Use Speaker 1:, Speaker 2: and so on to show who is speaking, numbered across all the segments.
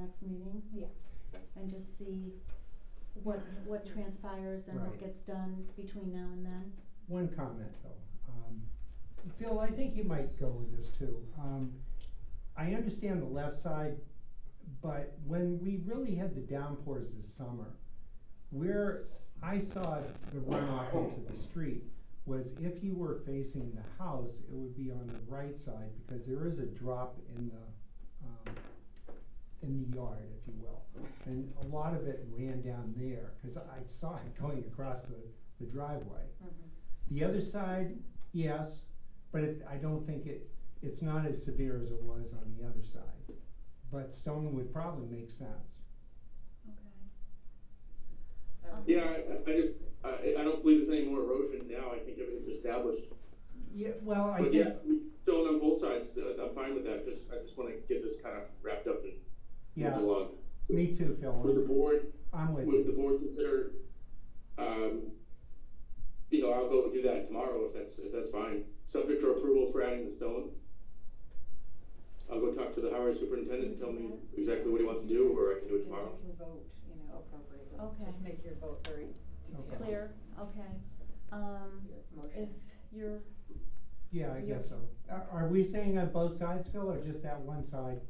Speaker 1: next meeting
Speaker 2: Yeah,
Speaker 1: and just see what, what transpires and what
Speaker 3: Right.
Speaker 1: gets done between now and then.
Speaker 3: One comment though. Um, Phil, I think you might go with this too. Um, I understand the left side, but when we really had the downpours this summer, where I saw the runoff into the street was if you were facing the house, it would be on the right side because there is a drop in the, um, in the yard, if you will. And a lot of it ran down there, cause I saw it going across the, the driveway. The other side, yes, but it, I don't think it, it's not as severe as it was on the other side. But stone would probably make sense.
Speaker 1: Okay.
Speaker 4: Yeah, I, I- I just, I, I don't believe there's any more erosion now, I think everything's established.
Speaker 3: Yeah, well, Oh, I
Speaker 4: But
Speaker 3: think,
Speaker 4: yeah, we still on both sides, uh, I'm fine with that, just, I just wanna get this kind of wrapped up and
Speaker 3: yeah,
Speaker 4: moved along.
Speaker 3: me too,
Speaker 4: Would the
Speaker 3: Phil,
Speaker 4: board,
Speaker 3: I'm with
Speaker 4: would the
Speaker 3: you.
Speaker 4: board consider, um, you know, I'll go do that tomorrow if that's, if that's fine, subject to approval for adding the stone. I'll go talk to the highway superintendent and tell me exactly what he wants to do, or I can do it
Speaker 2: And
Speaker 4: tomorrow.
Speaker 2: you can vote, you know, appropriately.
Speaker 1: Okay.
Speaker 2: Just make your vote very detailed.
Speaker 3: Okay.
Speaker 1: Clear, okay. Um,
Speaker 2: Your
Speaker 1: if
Speaker 2: motion.
Speaker 1: you're,
Speaker 3: Yeah, I
Speaker 1: Yep.
Speaker 3: guess so. Are, are we saying on both sides, Phil, or just that one side?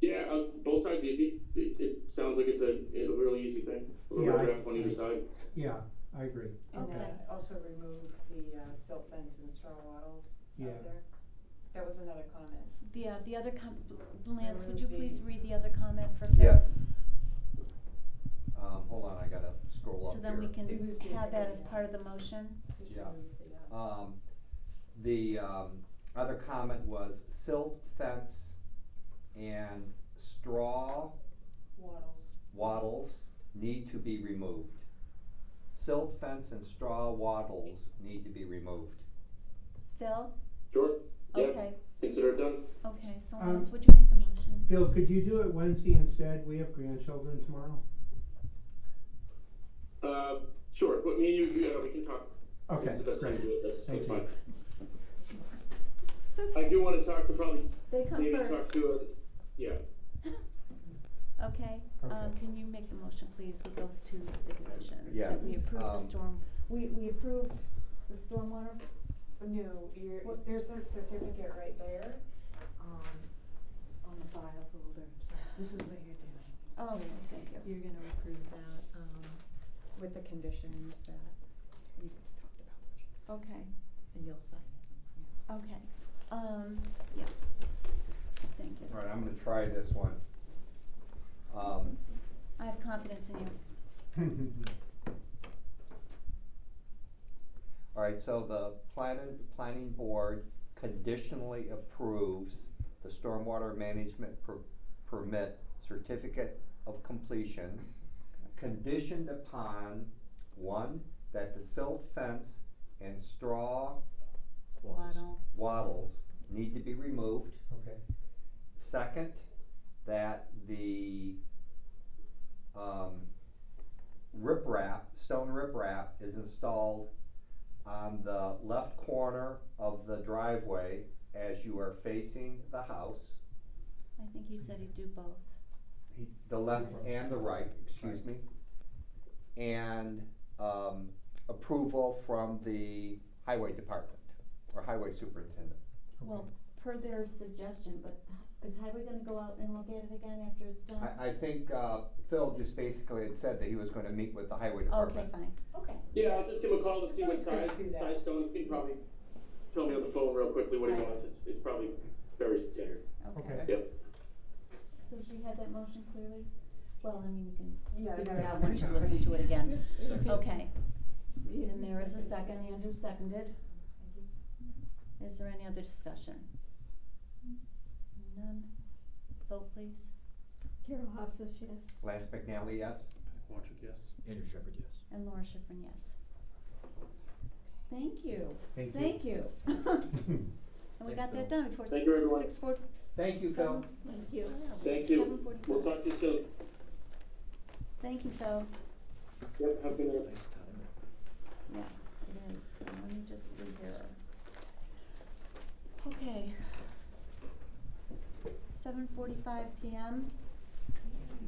Speaker 4: Yeah, uh, both sides easy, it, it sounds like it's a, a really easy thing, a little
Speaker 3: Yeah, I-
Speaker 4: draft on either side.
Speaker 3: Yeah, I agree.
Speaker 2: And
Speaker 1: Okay.
Speaker 2: then also remove the uh, silt fence and straw wattles
Speaker 3: Yeah.
Speaker 2: out there. That was another comment.
Speaker 1: the, uh, the other com- Lance, would you
Speaker 2: Remove
Speaker 1: please
Speaker 2: the-
Speaker 1: read the other comment for Phil?
Speaker 5: Yes. Um, hold on, I gotta scroll up
Speaker 1: So
Speaker 5: here.
Speaker 1: then we can
Speaker 2: It was
Speaker 1: have that as
Speaker 2: basically-
Speaker 1: part of the motion.
Speaker 2: Just
Speaker 5: Yeah.
Speaker 2: remove the, uh,
Speaker 5: Um, the, um, other comment was silt fence and straw
Speaker 2: Wattles.
Speaker 5: wattles need to be removed. Silt fence and straw wattles need to be removed.
Speaker 1: Phil?
Speaker 4: Sure, yeah,
Speaker 1: Okay,
Speaker 4: consider it done.
Speaker 1: okay, so
Speaker 3: Um,
Speaker 1: Lance, would you make the motion?
Speaker 3: Phil, could you do it Wednesday instead? We have grandchildren tomorrow.
Speaker 4: Uh, sure, but me and you, you know, we can talk.
Speaker 3: Okay,
Speaker 4: It's the best time to do
Speaker 3: great.
Speaker 4: it, that's,
Speaker 3: Thank
Speaker 4: that's
Speaker 3: you.
Speaker 4: fine.
Speaker 1: It's okay.
Speaker 4: I do wanna talk to probably,
Speaker 1: They come
Speaker 4: maybe
Speaker 1: first.
Speaker 4: talk to, uh, yeah,
Speaker 1: Okay, uh,
Speaker 3: Okay.
Speaker 1: can you make the motion, please, with those two stipulations? That we
Speaker 5: Yes,
Speaker 1: approve the
Speaker 5: um,
Speaker 1: storm, we, we approve the stormwater,
Speaker 2: No, you're,
Speaker 1: What-
Speaker 2: there's a certificate right there, um, on the file folder, so this is what you're doing.
Speaker 1: oh, thank you.
Speaker 2: You're gonna approve that, um, with the conditions that we talked about,
Speaker 1: Okay,
Speaker 2: and you'll sign it.
Speaker 1: okay, um, yeah, thank you.
Speaker 5: Alright, I'm gonna try this one. Um,
Speaker 1: I have confidence in you.
Speaker 5: Alright, so the planning, planning board conditionally approves the stormwater management per- permit certificate of completion conditioned upon, one, that the silt fence and straw
Speaker 1: Waddle,
Speaker 5: wattles need to be removed.
Speaker 3: Okay,
Speaker 5: Second, that the, um, riprap, stone riprap is installed on the left corner of the driveway as you are facing the house,
Speaker 1: I think he said he'd do both.
Speaker 5: he- the left and the right, excuse me. And, um, approval from the highway department, or highway superintendent.
Speaker 1: Well, per their suggestion, but is Highway gonna go out and look at it again after it's done?
Speaker 5: I, I think, uh, Phil just basically had said that he was gonna meet with the highway department.
Speaker 1: Okay, fine,
Speaker 2: Okay.
Speaker 4: yeah, I'll just give him a call to see
Speaker 2: It's
Speaker 4: what
Speaker 2: always good
Speaker 4: size,
Speaker 2: to do that.
Speaker 4: size stone, he can probably tell me on the phone real quickly what he
Speaker 1: Right.
Speaker 4: wants, it's, it's probably very standard.
Speaker 1: okay.
Speaker 3: okay.
Speaker 1: So she had that motion clearly? Well, I mean, you can
Speaker 2: Yeah.
Speaker 1: figure
Speaker 2: no,
Speaker 1: it out
Speaker 2: no.
Speaker 1: once you listen to it again.
Speaker 2: Second.
Speaker 1: Okay,
Speaker 2: Yeah,
Speaker 1: and there is a
Speaker 2: second.
Speaker 1: second, Andrew seconded. Is there any other discussion? None? Vote please.
Speaker 6: Carol Hoff says yes.
Speaker 5: Lance McNally, yes?
Speaker 7: Andrew Shepherd, yes.
Speaker 1: And Laura Schifrin, yes. Thank you.
Speaker 3: Thank you.
Speaker 1: Thank you. And we
Speaker 5: Thanks,
Speaker 1: got that
Speaker 5: Bill.
Speaker 1: done before
Speaker 4: Thank you, everyone.
Speaker 1: six four.
Speaker 5: Thank you, Phil.
Speaker 6: Thank you.
Speaker 4: Thank you,
Speaker 1: Seven forty-five.
Speaker 4: we'll talk to you soon.
Speaker 1: Thank you, Phil.
Speaker 4: Yep, have a good night.
Speaker 7: Nice time.
Speaker 1: Yeah, it is. And Let me just see here. Okay. Seven forty-five PM.